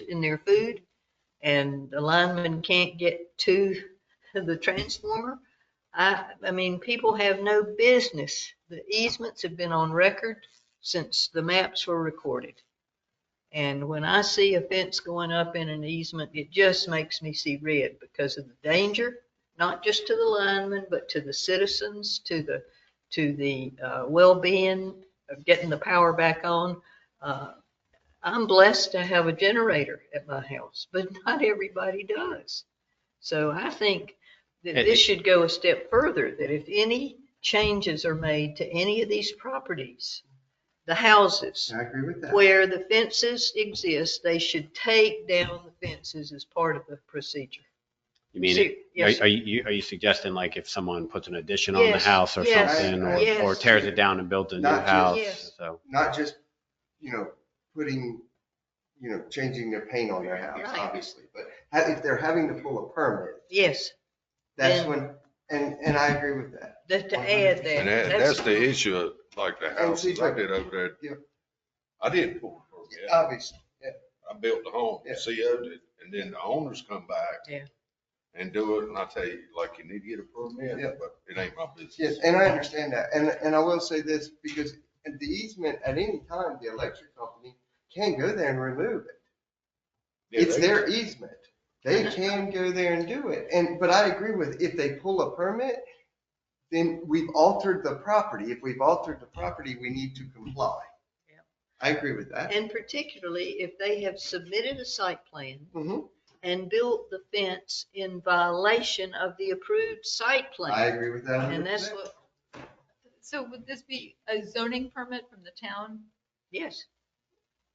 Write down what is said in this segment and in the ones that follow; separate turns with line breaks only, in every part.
in their food and the lineman can't get to the transformer. I, I mean, people have no business. The easements have been on record since the maps were recorded. And when I see a fence going up in an easement, it just makes me see red because of the danger, not just to the linemen, but to the citizens, to the, to the uh, well-being of getting the power back on. Uh, I'm blessed to have a generator at my house, but not everybody does. So I think that
And-
this should go a step further, that if any changes are made to any of these properties, the houses,
I agree with that.
where the fences exist, they should take down the fences as part of the procedure.
You mean,
Shoot,
are
yes.
are you, are you suggesting like if someone puts an addition on the
Yes,
house or
yes,
something,
yes.
or- or tears it down and builds a new
Not just-
house?
Yes.
So,
Not just, you know, putting, you know, changing their paint on their house,
Right.
obviously, but ha- if they're having to pull a permit,
Yes,
that's
Then-
when, and, and I agree with that.
that to add that.
And that, that's the issue, of, like the houses I did over
Oh, Yeah.
there. I didn't pull the permit.
Obviously,
I built the home,
Yeah.
CO'd it, and then the owners come back.
Yeah.
And do it, and I tell you, like, you need to get a
Yeah.
permit, but it ain't my
yes,
business.
and I understand that. And, and I will say this, because the easement, at any time, the electric company can go there and remove it.
Yeah,
It's
they-
their easement. They can go there and do it. And, but I agree with, if they pull a permit, then we've altered the property. If we've altered the property, we need to comply.
Yeah.
I agree with that.
And particularly if they have submitted a site plan
Mhm.
and built the fence in violation of the approved site
I
plan.
agree with that.
And that's
100%.
what,
So would this be a zoning permit from the town?
yes,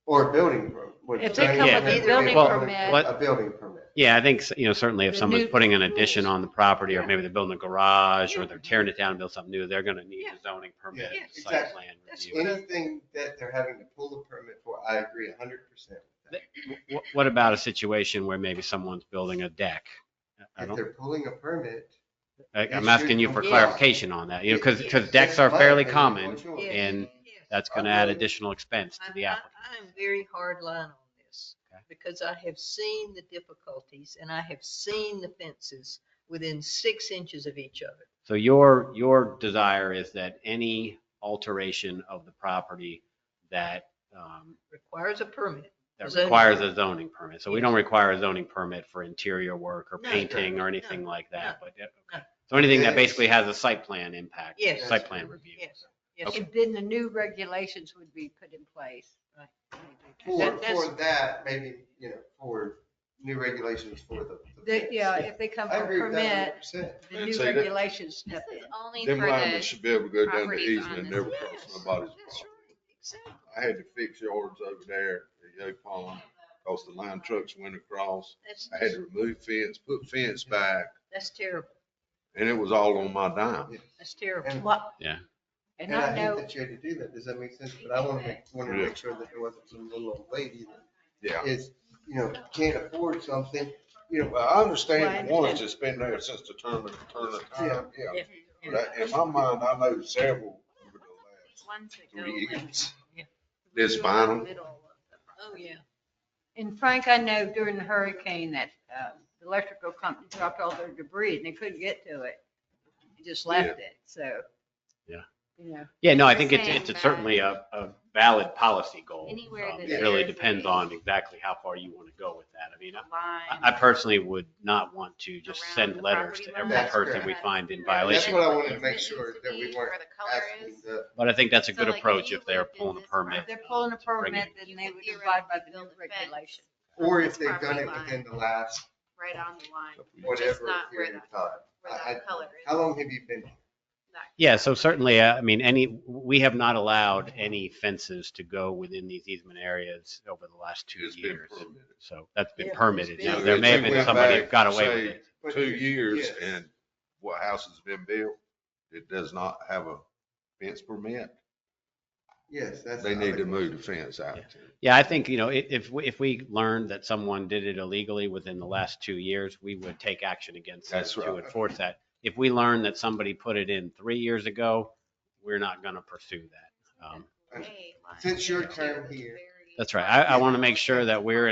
Or a building permit. would
If they
zoning
come with a
permit be
building
a
permit-
What-
A building permit.
yeah, I think, you know, certainly if
The
someone's
new
putting an addition
rules.
on the property, or
Yeah.
maybe they're building a garage, or
Yeah.
they're tearing it down and building something new, they're going to need
Yeah.
a zoning permit,
Yeah,
site
exactly.
plan
That's
review.
Anything that they're having to pull a permit for, I agree hundred percent.
Wh- What about a situation where maybe someone's building a deck? I
If
don't,
they're pulling a permit.
I- I'm
should
asking you for
comply.
clarification on that, you know, because,
Yeah.
decks
that's
are
my
fairly
opinion,
common,
what's yours?
Yeah.
and
yes.
that's going to add additional expense to the
I- I-
applicant.
I am very hard line on this
Okay.
because I have seen the difficulties and I have seen the fences within six inches of each other.
So your, your desire is that any alteration of the property that, um,
Requires a permit.
that
Zoning.
requires a zoning permit. So we don't require a zoning permit for interior work or
No,
painting
no,
or anything like that, but, yeah,
no.
okay. So anything
Yes.
that basically has a site plan impact,
Yes.
site plan review.
Yes. Yes,
Okay.
And then the new regulations would be put in place.
For,
That- that's-
for that, maybe, you know, for new regulations for the. the
they-
fence.
Yeah, if they come
I
for a
agree with that
permit,
100%.
the
I'd
new
say that-
regulations step in.
only
Them linemen should be able to go down the
properties
easement
on
and
this
never cross
Yes,
nobody's
That's
property.
right, exactly.
I had to fix yards over there at Yo Pond, cause the line trucks went across.
That's,
I had to remove fence, put fence back,
that's terrible.
and it was all on my dime.
That's terrible.
And-
What-
Yeah.
And
And I
I
hate
know,
that you had to do that. Does that make sense? But I want to make, want to
Yeah.
make sure that there wasn't some little old lady
Yeah.
that is, you know, can't afford something, you know,
Well, I understand the
Well, I
ones that's been there since the turn of, turn of time, yeah.
Yeah.
But I- in my mind, I know several over the last
Ones that go
three
like-
years.
Yeah.
This vinyl,
Oh, yeah.
and Frank, I know during the hurricane that uh, the electrical company dropped all their debris and they couldn't get to it. They Just left it, so.
Yeah.
You know,
Yeah, no, I
We're
think it's,
saying
it's
that-
certainly a, a valid policy goal.
Anywhere
Um,
that
It really
there's
depends
a-
on exactly how far you want to go with that. I mean, I-
Line.
I personally would not want to just
Around
send
the
letters
property
to
line.
every
That's
person we
correct.
find in
that's
violation.
what I wanted to make
It
sure
needs
that
to
we
be
weren't
Where the color
asking
Oh, is.
the,
But I think that's a
So,
good
like,
approach
you
if they're
lived in
pulling a
this
permit.
if they're pulling a permit,
Bring
then
You
they
could
would abide by the new
theoretically build a fence
regulation.
or
this
if they've done
property
it
line,
within the last
Right on the line,
whatever
not where
period of
that-
time.
where
I- I-
that color is.
How long have you been?
That-
Yeah, so certainly, uh, I mean, any, we have not allowed any fences to go within these easement areas over the last two
it's been
years.
permitted.
So that's been
Yeah,
permitted.
it's
Now,
been-
there may have
They
been
went
somebody
back
who got
and
away with
say,
it.
But
two years
yes.
and what house has been built, it does not have a fence permit,
Yes, that's.
they
the
need
other
to move the
question.
fence out.
Yeah, I think, you know, i- if, we- if we learned that someone did it illegally within the last two years, we would take action against them
That's
to
right.
enforce that. If we learn that somebody put it in three years ago, we're not going to pursue that. Um,
way line.
Since your term here-
That's right. I, I want to make sure that we're